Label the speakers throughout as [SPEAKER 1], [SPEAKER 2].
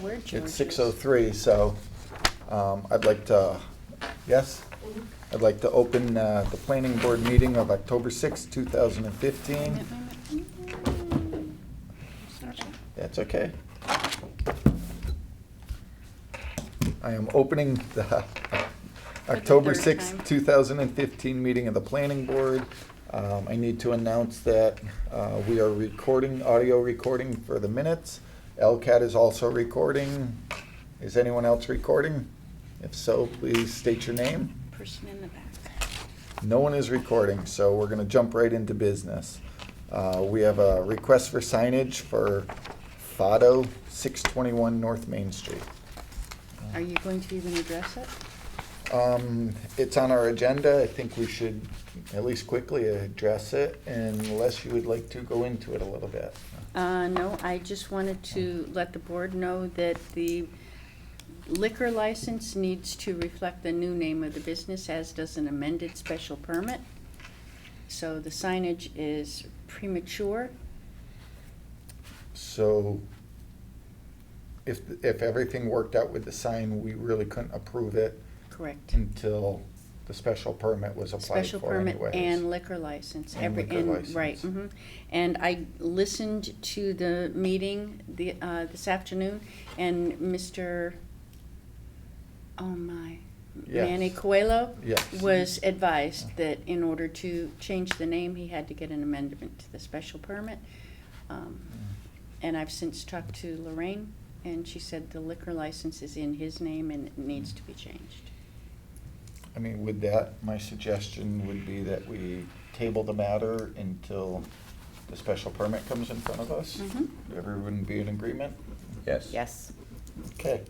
[SPEAKER 1] where George
[SPEAKER 2] It's
[SPEAKER 1] is.
[SPEAKER 2] six oh three, so um, I'd like to, yes?
[SPEAKER 1] Mm-hmm.
[SPEAKER 2] I'd like to open uh, the planning board meeting of October sixth, two thousand and fifteen.
[SPEAKER 1] Minute, minute, minute. Sorry.
[SPEAKER 2] That's okay. I am opening the
[SPEAKER 1] the third time.
[SPEAKER 2] October sixth, two thousand and fifteen meeting of the planning board. Um, I need to announce that uh, we are recording, audio recording for the minutes. LCAT is also recording. Is anyone else recording? If so, please state your name.
[SPEAKER 1] Person in the back.
[SPEAKER 2] No one is recording, so we're gonna jump right into business. Uh, We have a request for signage for Fado, 621 North Main Street.
[SPEAKER 1] Are you going to even address it?
[SPEAKER 2] Um, It's on our agenda, I think we should at least quickly address it, unless you would like to go into it a little bit.
[SPEAKER 1] Uh, no, I just wanted to let the board know that the liquor license needs to reflect the new name of the business, as does an amended special permit. So the signage is premature.
[SPEAKER 2] So if, if everything worked out with the sign, we really couldn't approve it
[SPEAKER 1] Correct.
[SPEAKER 2] until the special permit was applied
[SPEAKER 1] Special
[SPEAKER 2] for
[SPEAKER 1] permit
[SPEAKER 2] anyways.
[SPEAKER 1] and liquor license,
[SPEAKER 2] And
[SPEAKER 1] every,
[SPEAKER 2] liquor
[SPEAKER 1] and,
[SPEAKER 2] license.
[SPEAKER 1] right, mhm. And I listened to the meeting the, uh, this afternoon, and Mr., oh my,
[SPEAKER 2] Yes.
[SPEAKER 1] Manny Coelho
[SPEAKER 2] Yes.
[SPEAKER 1] was advised that in order to change the name, he had to get an amendment to the special permit. Um,
[SPEAKER 2] Mm.
[SPEAKER 1] And I've since talked to Lorraine, and she said the liquor license is in his name and it needs to be changed.
[SPEAKER 2] I mean, with that, my suggestion would be that we table the matter until the special permit comes in front of us.
[SPEAKER 1] Mhm.
[SPEAKER 2] Everyone be in agreement?
[SPEAKER 3] Yes.
[SPEAKER 4] Yes.
[SPEAKER 2] Okay,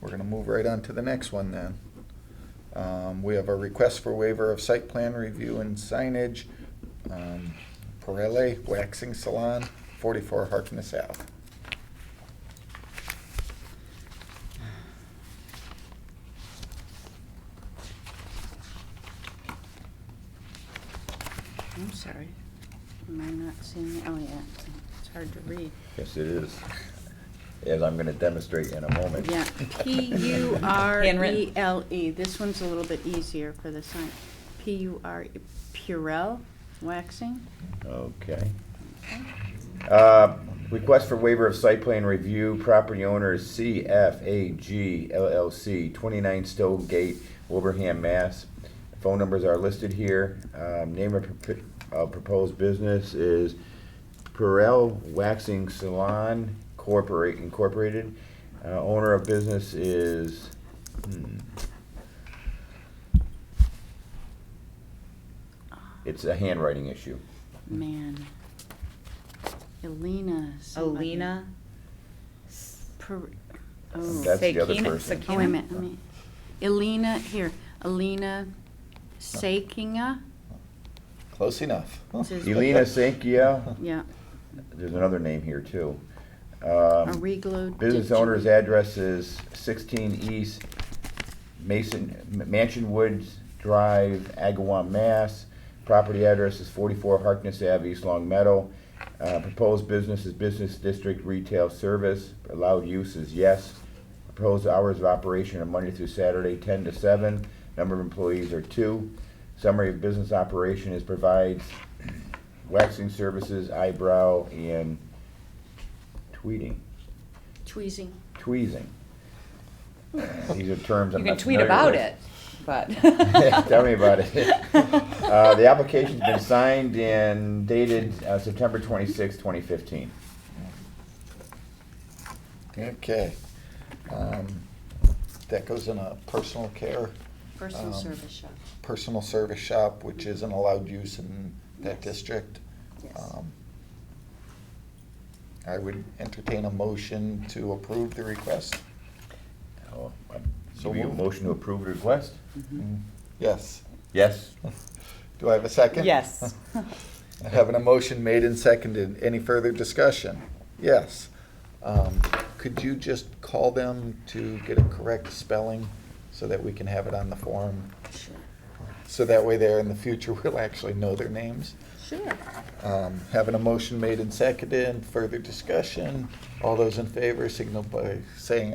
[SPEAKER 2] we're gonna move right on to the next one then. Um, we have a request for waiver of site plan review and signage, um, Pirelli Waxing Salon, forty-four Harkness Ave.
[SPEAKER 1] I'm sorry. Am I not seeing, it? oh yeah, it's hard to read.
[SPEAKER 3] Yes, it is. As I'm gonna demonstrate in a moment.
[SPEAKER 1] Yeah, P U R E
[SPEAKER 4] Handwritten.
[SPEAKER 1] L E. This one's a little bit easier for the sign. P U R, E, Purell waxing.
[SPEAKER 3] Okay. Uh, Request for waiver of site plan review, property owner is CFAG LLC, 29 Stowe Gate, Wilbraham, Mass. Phone numbers are listed here. Um, Name of propo- of proposed business is Perel Waxing Salon Corporate Incorporated. Uh, Owner of business is, hmm. It's a handwriting issue.
[SPEAKER 1] Man. Elena. somebody.
[SPEAKER 4] Alina.
[SPEAKER 1] Per- Oh,
[SPEAKER 3] That's the other
[SPEAKER 4] Sakina-
[SPEAKER 3] person.
[SPEAKER 1] oh, wait a minute, let me, Elena, here, Elena Sakinga.
[SPEAKER 2] Close enough.
[SPEAKER 1] This is-
[SPEAKER 3] Elena Sankia,
[SPEAKER 1] Yeah,
[SPEAKER 3] there's another name here too. Um,
[SPEAKER 1] Ariglo.
[SPEAKER 3] Business
[SPEAKER 1] Digi-
[SPEAKER 3] owner's address is sixteen East Mason, Mansion Woods Drive, Agawam, Mass. Property address is forty-four Harkness Ave, East Long Meadow. Uh, proposed business is Business District Retail Service, allowed use is yes. Proposed hours of operation are Monday through Saturday, ten to seven, number of employees are two. Summary of business operation is provides waxing services, eyebrow, and tweeting
[SPEAKER 1] Tweezing.
[SPEAKER 3] tweezing. These are terms
[SPEAKER 4] You can
[SPEAKER 3] I'm not
[SPEAKER 4] tweet
[SPEAKER 3] familiar
[SPEAKER 4] about
[SPEAKER 3] with.
[SPEAKER 4] it, but.
[SPEAKER 3] Tell me about it. Uh, the application's been signed and dated uh, September 26, 2015.
[SPEAKER 2] Okay. Um, That goes in a personal care.
[SPEAKER 1] Personal
[SPEAKER 2] um,
[SPEAKER 1] service shop.
[SPEAKER 2] personal service shop, which isn't allowed use in that
[SPEAKER 1] Yes.
[SPEAKER 2] district.
[SPEAKER 1] Yes.
[SPEAKER 2] Um, I would entertain a motion to approve the request.
[SPEAKER 3] Oh, I-
[SPEAKER 2] So
[SPEAKER 3] Give you a
[SPEAKER 2] moved.
[SPEAKER 3] motion to approve the request?
[SPEAKER 2] Yes.
[SPEAKER 3] Yes.
[SPEAKER 2] Do I have a second?
[SPEAKER 4] Yes.
[SPEAKER 2] Having a motion made and seconded. Any further discussion? Yes. Um, Could you just call them to get a correct spelling so that we can have it on the form?
[SPEAKER 1] Sure.
[SPEAKER 2] So that way there in the future, we'll actually know their names.
[SPEAKER 1] Sure.
[SPEAKER 2] Um, Having a motion made and seconded, further discussion. All those in favor signal by saying